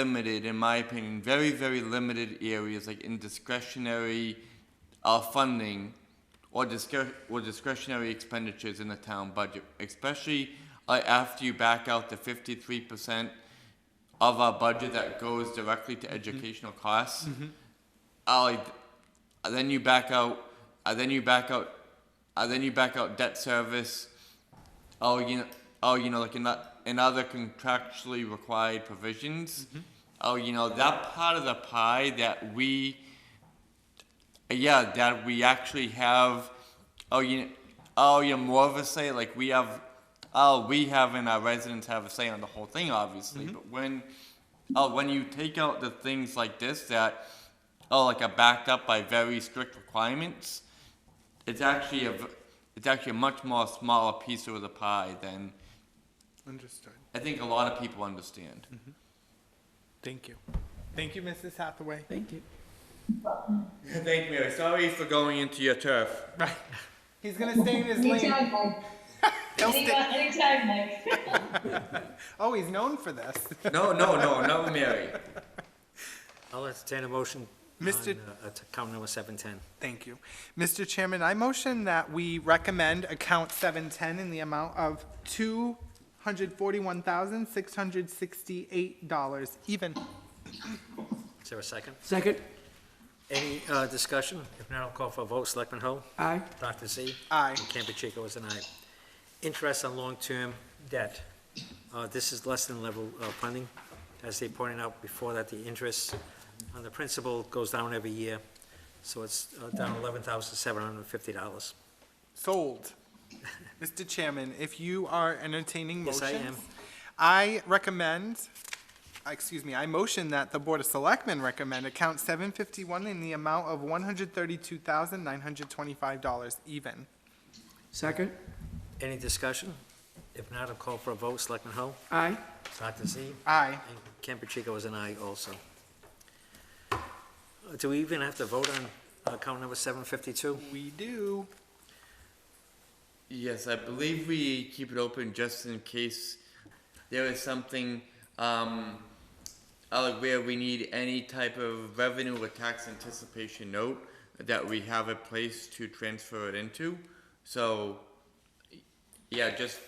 limited, in my opinion, very, very limited areas, like in discretionary uh, funding or discre- or discretionary expenditures in the town budget, especially uh, after you back out the fifty-three percent of our budget that goes directly to educational costs. I like- uh, then you back out, uh, then you back out, uh, then you back out debt service. Oh, you know, oh, you know, like in that, in other contractually required provisions. Oh, you know, that part of the pie that we, yeah, that we actually have. Oh, you, oh, you know, more of a say. Like we have, oh, we have, and our residents have a say on the whole thing, obviously. But when, oh, when you take out the things like this that, oh, like are backed up by very strict requirements it's actually a v- it's actually a much more smaller piece of the pie than Understood. I think a lot of people understand. Thank you. Thank you, Mrs. Hathaway. Thank you. Thank Mary. Sorry for going into your turf. Right. He's gonna stay in his lane. Anytime, Mike. He'll stay- Anytime, anytime, Mike. Oh, he's known for this. No, no, no, no, Mary. I'll entertain a motion on Mr. uh, account number 710. Thank you. Mr. Chairman, I motion that we recommend account seven ten in the amount of two hundred forty-one thousand, six hundred sixty-eight dollars even. Is there a second? Second, Any uh, discussion? If not, I'll call for a vote. Selectman Hull? aye. Dr. Z? Aye. And Campuchico is an aye. Interest on long-term debt. Uh, This is less than level uh, funding. As they pointed out before that, the interest on the principal goes down every year, so it's uh, down $11,750. Sold. Mr. Chairman, if you are entertaining Yes, motions. I am. I recommend, uh, excuse me, I motion that the Board of Selectmen recommend account seven fifty-one in the amount of one hundred thirty-two thousand, nine hundred twenty-five dollars even. Second, Any discussion? If not, I'll call for a vote. Selectman Hull? aye. Dr. Z? Aye. And Campuchico was an aye also. Uh, Do we even have to vote on account number 752? We do. Yes, I believe we keep it open just in case there is something um, uh, where we need any type of revenue or tax anticipation note that we have a place to transfer it into. So, yeah, just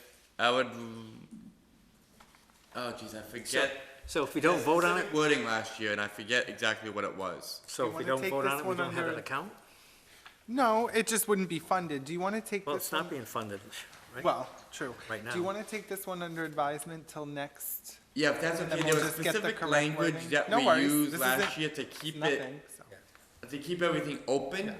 I would. Oh, geez, I forget. So if we don't vote on it, Specific Wording last year, and I forget exactly what it was. so You if we wanna don't take vote on this it, we one don't have under- an account? No, it just wouldn't be funded. Do you want to take Well, it's this not one? being funded, right? Well, true. Right Do you now. want to take this one under advisement till next? Yeah, if that's And okay, then there was we'll just get the specific correct language wording. that No we worries, used this last isn't- year to keep it, Nothing, so. to keep everything open.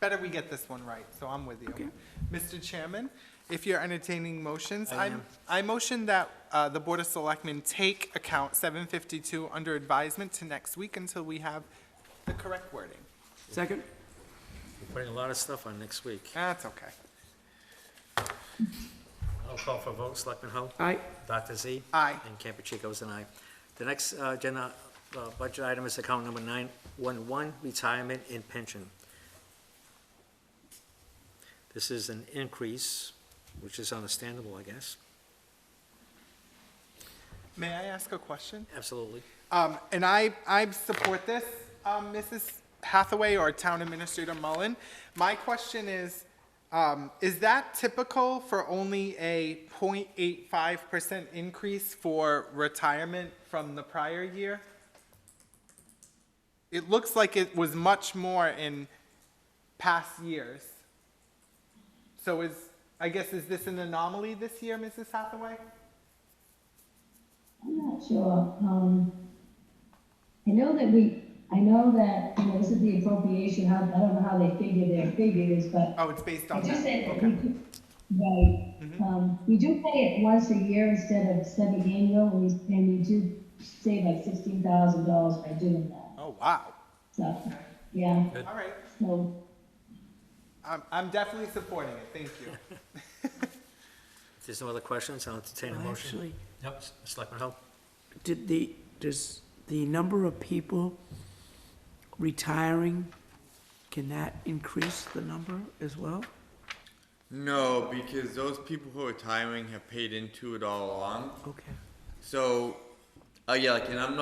Better we get this one right, so I'm with you. Mr. Chairman, if you're entertaining motions, I, I motion that uh, the Board of Selectmen take account 752 under advisement to next week until we have the correct wording. Second, We're Putting a lot of stuff on next week. That's okay. I'll call for a vote. Selectman Hull? aye. Dr. Z? Aye. And Campuchico is an aye. The next uh, agenda uh, budget item is account number 911, retirement and pension. This is an increase, which is understandable, I guess. May I ask a question? Absolutely. Um, and I, I support this, um, Mrs. Hathaway or Town Administrator Mullen. My question is, um, is that typical for only a 0.85% increase for retirement from the prior year? It looks like it was much more in past years. So is, I guess, is this an anomaly this year, Mrs. Hathaway? I'm not sure. Um, I know that we, I know that, you know, this is the appropriation, how, I don't know how they figure their figures, but Oh, it's based I on that, just said that okay. we could, right. Um, we do pay it once a year instead of semi-annual, and we, and we do save like sixteen thousand dollars by doing that, Oh, wow. so, yeah, All right. so. I'm, I'm definitely supporting it, thank you. If there's no other questions, I'll entertain a motion. Actually, Yep, Selectman Hull? did the, does the number of people retiring, can that increase the number as well? No, because those people who are retiring have paid into it all along. Okay. So, Uh, yeah, like, and I'm not